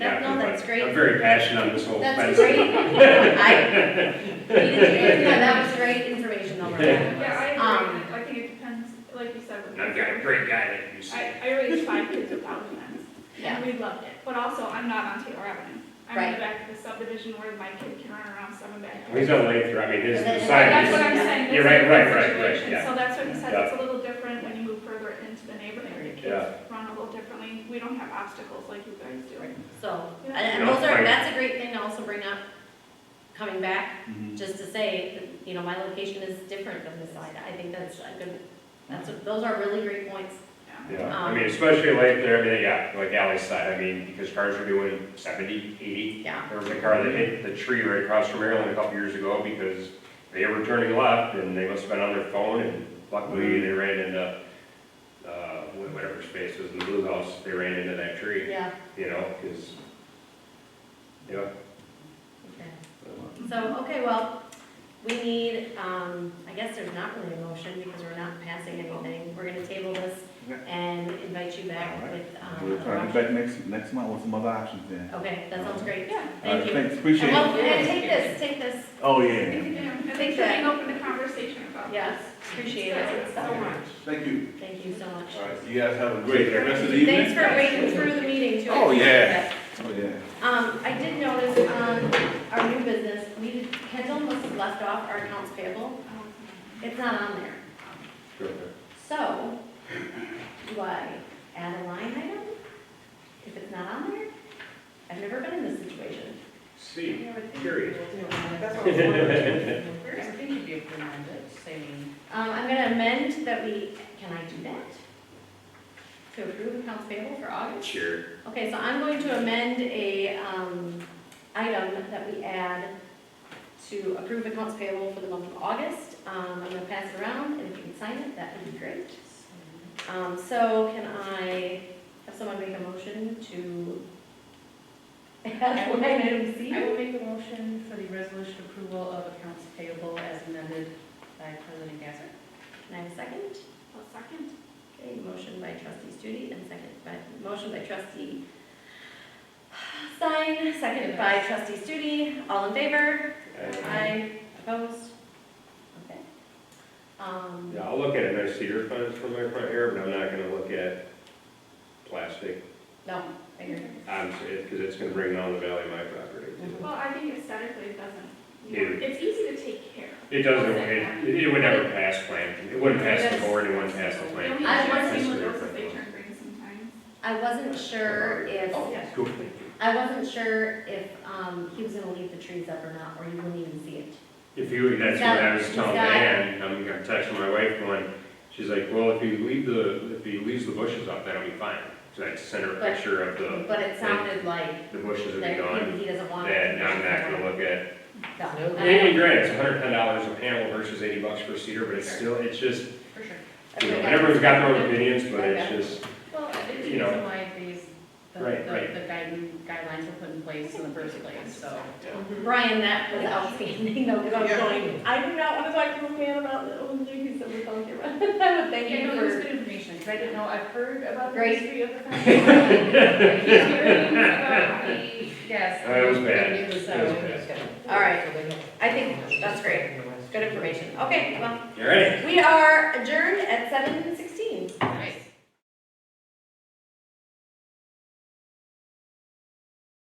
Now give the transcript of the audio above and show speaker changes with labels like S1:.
S1: I'm
S2: great.
S1: very passionate on this whole
S2: That's
S1: fence.
S2: great. I, you did- yeah, that was great information on that.
S3: Yeah, I
S2: Um,
S3: agree, I think it depends, like you said. with-
S1: And I've got a great guy that you see.
S3: I, I raised five kids with Down syndrome,
S2: Yeah.
S3: and we loved it, but also, I'm not on Taylor Avenue. I'm in
S2: Right.
S3: the back of the subdivision where my kid can run around seven back.
S1: Well, He's on Lathrop, I mean, his,
S2: But
S1: the
S2: then-
S1: side
S3: That's
S1: is,
S3: what I'm saying.
S1: Yeah,
S3: it's a
S1: right, right, right,
S3: different
S1: right,
S3: situation.
S1: yeah.
S3: So that's what he said,
S1: Yeah.
S3: it's a little different when you move further into the neighborhood, your
S1: Yeah.
S3: kids run a little differently, we don't have obstacles like you guys do.
S2: So, and-
S1: You
S2: and
S1: know,
S2: those are,
S1: like-
S2: that's a great thing to also bring up, coming back,
S4: Mhm.
S2: just to say, that, you know, my location is different than this side. I think that's a good, that's, a- those are really great points.
S1: yeah,
S3: Um,
S1: I mean, especially Lathrop, I mean, yeah, like Ally's side, I mean, because cars are doing seventy, eighty.
S2: Yeah,
S1: There was a car that hit the tree right across from Maryland a couple years ago because they were turning left and they must have been on their phone and luckily they ran into, uh, wh- whatever space was in the blue house, they ran into that tree,
S2: yeah.
S1: you know, because, yeah,
S2: okay. So, okay, well, we need, um, I guess there's not really a motion because we're not passing anything. We're gonna table this and invite you back with, um,
S4: We'll
S2: a
S4: try to
S2: motion.
S4: be back next, next month with some other options then.
S2: Okay, that sounds great.
S3: Yeah.
S2: Thank
S4: All right,
S2: you.
S4: Thanks,
S2: And
S4: appreciate it.
S2: well, and take this, take this,
S4: Oh, yeah.
S3: And
S2: Think
S3: they
S2: that-
S3: should open the conversation about.
S2: yes, appreciate it so much.
S4: Thank you.
S2: Thank you so much.
S4: All right, you guys have a great rest of the evening.
S2: Thanks for waiting through the meeting too. I
S4: Oh,
S2: appreciate
S4: yeah.
S2: that.
S4: Oh, yeah.
S2: Um, I did notice on our new business, we, did- Kendall must have left off our accounts payable.
S3: Um,
S2: It's not on there. So, do I add a line item if it's not on there? I've never been in this situation.
S1: See, curious.
S5: That's what I'm wondering. Where is it to be reminded, saying,
S2: Um, I'm gonna amend that we, can I do that? To approve accounts payable for August?
S1: Sure.
S2: Okay, so I'm going to amend a, um, item that we add to approve accounts payable for the month of August. Um, I'm gonna pass it around, and if you can sign it, that would be great. Um, so can I have someone make a motion to add line item C?
S5: I will make a motion for the resolution approval of accounts payable as amended by President Gasser.
S2: Can I have a second?
S3: Well, second.
S2: Okay, motion by trustee Studi and second by, motion by trustee Stein, seconded by trustee Studi. All in favor?
S1: Uh,
S2: Aye. Opposed? Okay. Um,
S1: Yeah, I'll look at it, and I see your funds from my front here, but I'm not gonna look at plastic,
S2: no, I agree.
S1: um, because it's gonna bring down the value of my property.
S2: Mhm.
S3: Well, I think aesthetically it doesn't,
S1: Yeah.
S3: you know, it's easy to take care of.
S1: It doesn't, it, it would never pass plan, it wouldn't pass the board, it wouldn't pass the
S3: You
S1: plan.
S3: don't
S2: I want
S3: even see
S1: That's
S3: what
S1: the
S3: else if they
S1: difference.
S3: turn green sometimes.
S2: I wasn't sure if,
S5: Oh.
S3: yeah.
S1: Cool.
S2: I wasn't sure if, um, he was gonna leave the trees up or not, or you wouldn't even see it.
S1: If you, that's what I was
S2: He's got-
S1: telling
S2: he's got-
S1: Dan, I'm gonna text my wife one, she's like, well, if you leave the, if you leaves the bushes up, that'll be fine. So I sent her a
S2: But-
S1: picture of the,
S2: But it sounded like
S1: the bushes would be
S2: that
S1: gone,
S2: he- he doesn't want. it.
S1: and I'm not gonna look at
S2: No.
S1: And and granted, it's hundred and ten dollars a panel versus eighty bucks for cedar, but it's still, it's just,
S5: For sure.
S1: you know, everyone's got their own opinions, but it's
S2: Okay.
S1: just,
S5: Well, it's
S1: You
S5: the
S1: know.
S5: reason why these, the,
S1: Right, right.
S5: the the guiding guidelines were put in place in the first place, so.
S2: Brian, that was outstanding, though, because I was
S5: Yeah.
S2: going, I do not want to talk to a man about the old duties that we talked about. Thank
S5: Yeah, no,
S2: you
S5: that's
S2: for.
S5: good information, because I didn't know, I've heard about the
S2: Great.
S5: history of the company. Yes.
S1: That was bad.
S5: It was, uh,
S1: That was bad.
S2: All right, I think that's great, good information. Okay, well,
S1: you ready?
S2: we are adjourned at seven sixty.